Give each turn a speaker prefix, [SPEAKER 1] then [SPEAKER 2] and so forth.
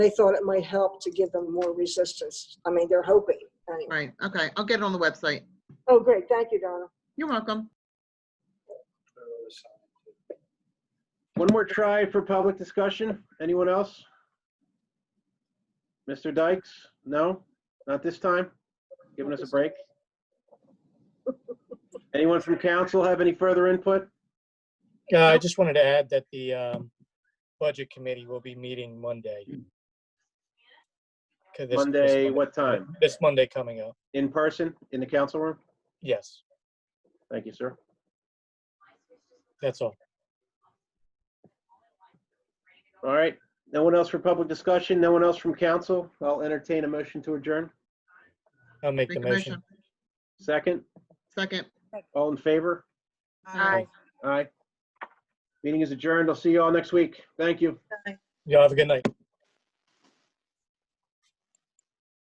[SPEAKER 1] they thought it might help to give them more resistance. I mean, they're hoping anyway.
[SPEAKER 2] Right, okay, I'll get it on the website.
[SPEAKER 1] Oh, great. Thank you, Donna.
[SPEAKER 2] You're welcome.
[SPEAKER 3] One more try for public discussion. Anyone else? Mr. Dykes? No? Not this time? Giving us a break? Anyone from council have any further input?
[SPEAKER 4] Yeah, Uh, I just wanted to add that the um, Budget Committee will be meeting Monday. 'Cause this-
[SPEAKER 3] Hmm.
[SPEAKER 4] this
[SPEAKER 3] Monday, what time?
[SPEAKER 4] This Monday coming up,
[SPEAKER 3] In person, in the council room?
[SPEAKER 4] yes,
[SPEAKER 3] Thank you, sir.
[SPEAKER 4] that's all.
[SPEAKER 3] All right. No one else for public discussion? No one else from council? I'll entertain a motion to adjourn.
[SPEAKER 4] I'll make the
[SPEAKER 2] Make a motion.
[SPEAKER 4] motion.
[SPEAKER 3] Second?
[SPEAKER 2] Second.
[SPEAKER 3] All in favor?
[SPEAKER 4] Aye.
[SPEAKER 3] Aye. Meeting is adjourned. I'll see you all next week. Thank you.
[SPEAKER 4] Y'all have a good night.